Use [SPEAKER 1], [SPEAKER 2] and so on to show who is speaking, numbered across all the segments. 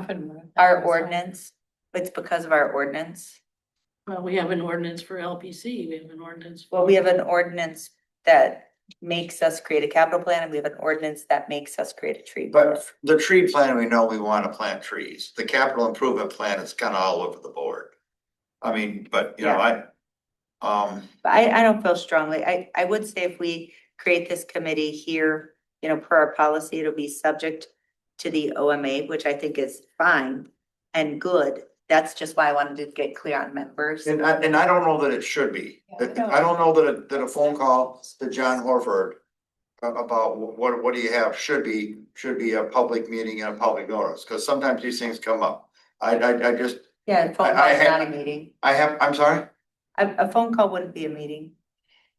[SPEAKER 1] haven't.
[SPEAKER 2] Our ordinance, it's because of our ordinance.
[SPEAKER 1] Well, we have an ordinance for LPC, we have an ordinance.
[SPEAKER 2] Well, we have an ordinance that makes us create a capital plan and we have an ordinance that makes us create a tree.
[SPEAKER 3] But the tree plan, we know we wanna plant trees. The capital improvement plan is kinda all over the board. I mean, but you know, I. Um,
[SPEAKER 2] But I, I don't feel strongly. I, I would say if we create this committee here, you know, per our policy, it'll be subject to the OMA, which I think is fine and good. That's just why I wanted to get clear on members.
[SPEAKER 3] and I, and I don't know that it should be.
[SPEAKER 2] Yeah,
[SPEAKER 3] That-
[SPEAKER 2] no.
[SPEAKER 3] I don't know that, a- that a phone call to John Horford. a- About wh- what, what do you have should be, should be a public meeting and a public notice, cause sometimes these things come up. I, I, I just,
[SPEAKER 2] Yeah, a phone
[SPEAKER 3] I- I
[SPEAKER 2] call is
[SPEAKER 3] had-
[SPEAKER 2] not a meeting.
[SPEAKER 3] I have, I'm sorry?
[SPEAKER 2] A, a phone call wouldn't be a meeting.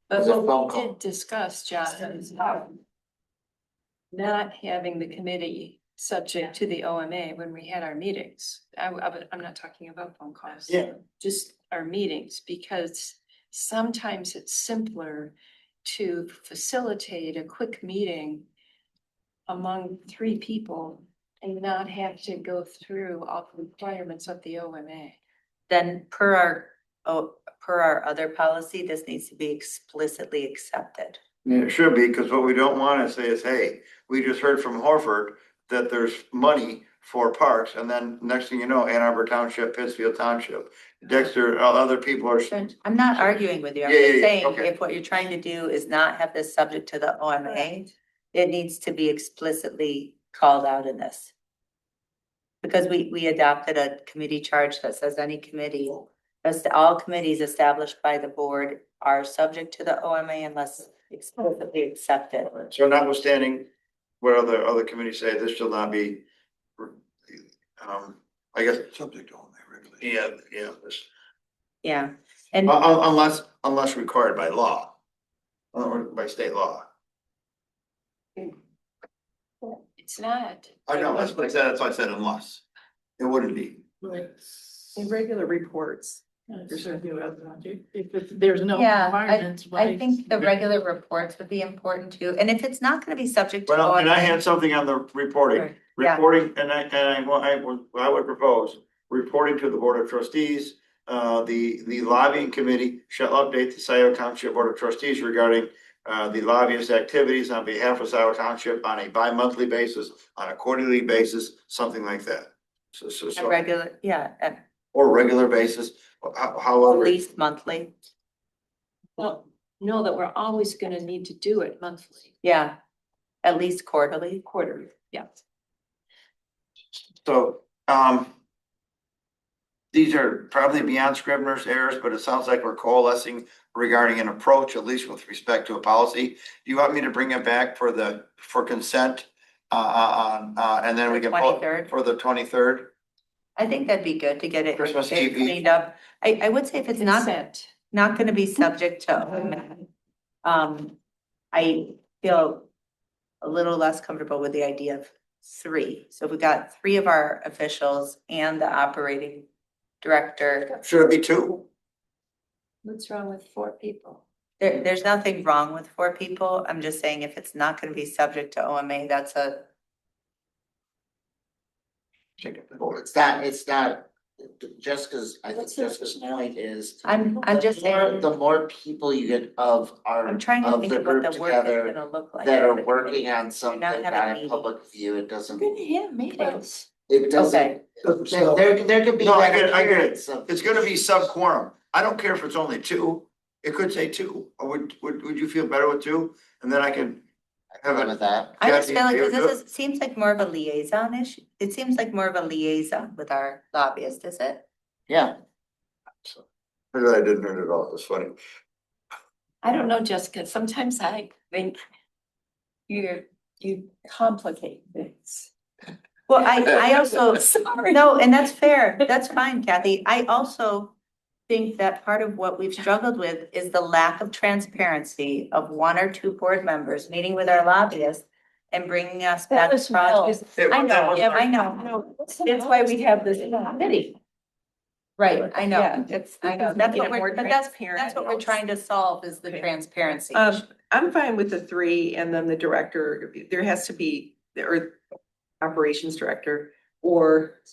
[SPEAKER 4] But
[SPEAKER 3] Was it phone
[SPEAKER 4] what we
[SPEAKER 3] call?
[SPEAKER 4] did discuss, John, is not having the committee subject to the OMA when we had our meetings. I, I, would- I'm not talking about phone calls.
[SPEAKER 3] Yeah.
[SPEAKER 4] Just our meetings, because sometimes it's simpler to facilitate a quick meeting among three people and not have to go through all the requirements of the OMA.
[SPEAKER 2] Then per our, oh, per our other policy, this needs to be explicitly accepted.
[SPEAKER 3] Yeah, it should be, because what we don't want to say is, hey, we just heard from Horford that there's money for parks, and then next thing you know, Ann Arbor Township, Pittsfield Township, Dexter, o- other people are.
[SPEAKER 2] Sure, I'm not arguing with you, I'm
[SPEAKER 3] Yeah, yeah,
[SPEAKER 2] just
[SPEAKER 3] yeah,
[SPEAKER 2] saying,
[SPEAKER 3] okay.
[SPEAKER 2] if what you're trying to do is not have this subject to the OMA, it needs to be explicitly called out in this. Because we, we adopted a committee charge that says any committee, as to all committees established by the board are subject to the OMA unless explicitly accepted.
[SPEAKER 3] So notwithstanding what other, other committees say, this shall not be, um, I guess. Subject only, really. Yeah, yeah, this-
[SPEAKER 2] Yeah, and
[SPEAKER 3] un- un- unless, unless required by law, or by state law.
[SPEAKER 4] It's not.
[SPEAKER 3] I know, that's what I said, that's why I said unless, it wouldn't be.
[SPEAKER 5] In regular reports,
[SPEAKER 1] There's a few other object. If it's- there's no
[SPEAKER 2] Yeah, I-
[SPEAKER 1] requirements,
[SPEAKER 2] I
[SPEAKER 1] why?
[SPEAKER 2] think the regular reports would be important too, and if it's not gonna be subject to.
[SPEAKER 3] Well, and I
[SPEAKER 2] OMA,
[SPEAKER 3] had something on the reporting.
[SPEAKER 2] Yeah.
[SPEAKER 3] Reporting, and I, and I, well, I would, I would propose, reporting to the Board of Trustees, uh, the, the lobbying committee shall update the Scioto Township Board of Trustees regarding uh, the lobbyist activities on behalf of Scioto Township on a bi-monthly basis, on a quarterly basis, something like that. So, so,
[SPEAKER 2] A
[SPEAKER 3] so,
[SPEAKER 2] regular, yeah, at
[SPEAKER 3] or regular basis, ho- however.
[SPEAKER 2] least monthly,
[SPEAKER 4] Well, know that we're always gonna need to do it monthly,
[SPEAKER 2] yeah, at least quarterly.
[SPEAKER 4] quarterly, yeah.
[SPEAKER 3] So, um. These are probably beyond Scrivener's errors, but it sounds like we're coalescing regarding an approach, at least with respect to a policy. Do you want me to bring it back for the, for consent? Uh, uh, uh, uh, and then we
[SPEAKER 2] The
[SPEAKER 3] can vote
[SPEAKER 2] 23rd?
[SPEAKER 3] for the twenty-third?
[SPEAKER 2] I think that'd be good to get it
[SPEAKER 3] Christmas
[SPEAKER 2] get it
[SPEAKER 3] Eve.
[SPEAKER 2] cleaned up. I, I would say if it's not,
[SPEAKER 4] Consent.
[SPEAKER 2] not gonna be subject to, um, I feel a little less comfortable with the idea of three. So we got three of our officials and the operating director.
[SPEAKER 3] Should it be two?
[SPEAKER 4] What's wrong with four people?
[SPEAKER 2] There, there's nothing wrong with four people. I'm just saying if it's not gonna be subject to OMA, that's a,
[SPEAKER 6] Well, it's not, it's not, Jessica's, I think Jessica's point is.
[SPEAKER 2] I'm, I'm just
[SPEAKER 6] the more-
[SPEAKER 2] saying.
[SPEAKER 6] The more people you get of our,
[SPEAKER 2] I'm trying to
[SPEAKER 6] of
[SPEAKER 2] think
[SPEAKER 6] the
[SPEAKER 2] of what
[SPEAKER 6] group
[SPEAKER 2] the work is
[SPEAKER 6] together
[SPEAKER 2] gonna look like.
[SPEAKER 6] that
[SPEAKER 2] as a
[SPEAKER 6] are
[SPEAKER 2] committee.
[SPEAKER 6] working on something
[SPEAKER 2] having a
[SPEAKER 6] not in
[SPEAKER 2] meeting.
[SPEAKER 6] public view, it doesn't,
[SPEAKER 4] have
[SPEAKER 6] meetings. it doesn't. There, there- there could be
[SPEAKER 3] No, I
[SPEAKER 6] that
[SPEAKER 3] get it, I get it.
[SPEAKER 6] appearance of.
[SPEAKER 3] It's gonna be sub-quorum. I don't care if it's only two. It could say two. Or Would, would, would you feel better with two? And then I can have
[SPEAKER 6] Good
[SPEAKER 3] it.
[SPEAKER 6] With that.
[SPEAKER 2] I just
[SPEAKER 3] Jackie,
[SPEAKER 2] feel like,
[SPEAKER 3] you
[SPEAKER 2] 'cause
[SPEAKER 3] do it?
[SPEAKER 2] this is, seems like more of a liaison issue, it seems like more of a liaison with our lobbyist, is it?
[SPEAKER 6] Yeah,
[SPEAKER 3] I didn't hear it at all. It's funny.
[SPEAKER 4] I don't know, Jessica, sometimes I think you, you complicate things.
[SPEAKER 2] Well, I, I also,
[SPEAKER 4] Sorry.
[SPEAKER 2] no, and that's fair, that's fine Kathy, I also think that part of what we've struggled with is the lack of transparency of one or two board members meeting with our lobbyist and bringing us back
[SPEAKER 4] That was
[SPEAKER 2] projects.
[SPEAKER 3] It-
[SPEAKER 2] I
[SPEAKER 3] that
[SPEAKER 2] know,
[SPEAKER 3] was-
[SPEAKER 2] I know,
[SPEAKER 4] That's
[SPEAKER 2] that's why we have this
[SPEAKER 4] committee.
[SPEAKER 2] right, I know,
[SPEAKER 5] Yeah.
[SPEAKER 2] it's, I know, that's what we're, but that's, that's what we're trying to solve is the
[SPEAKER 5] Okay.
[SPEAKER 2] transparency.
[SPEAKER 5] Um, I'm fine with the three and then the director, there has to be, or operations director
[SPEAKER 4] or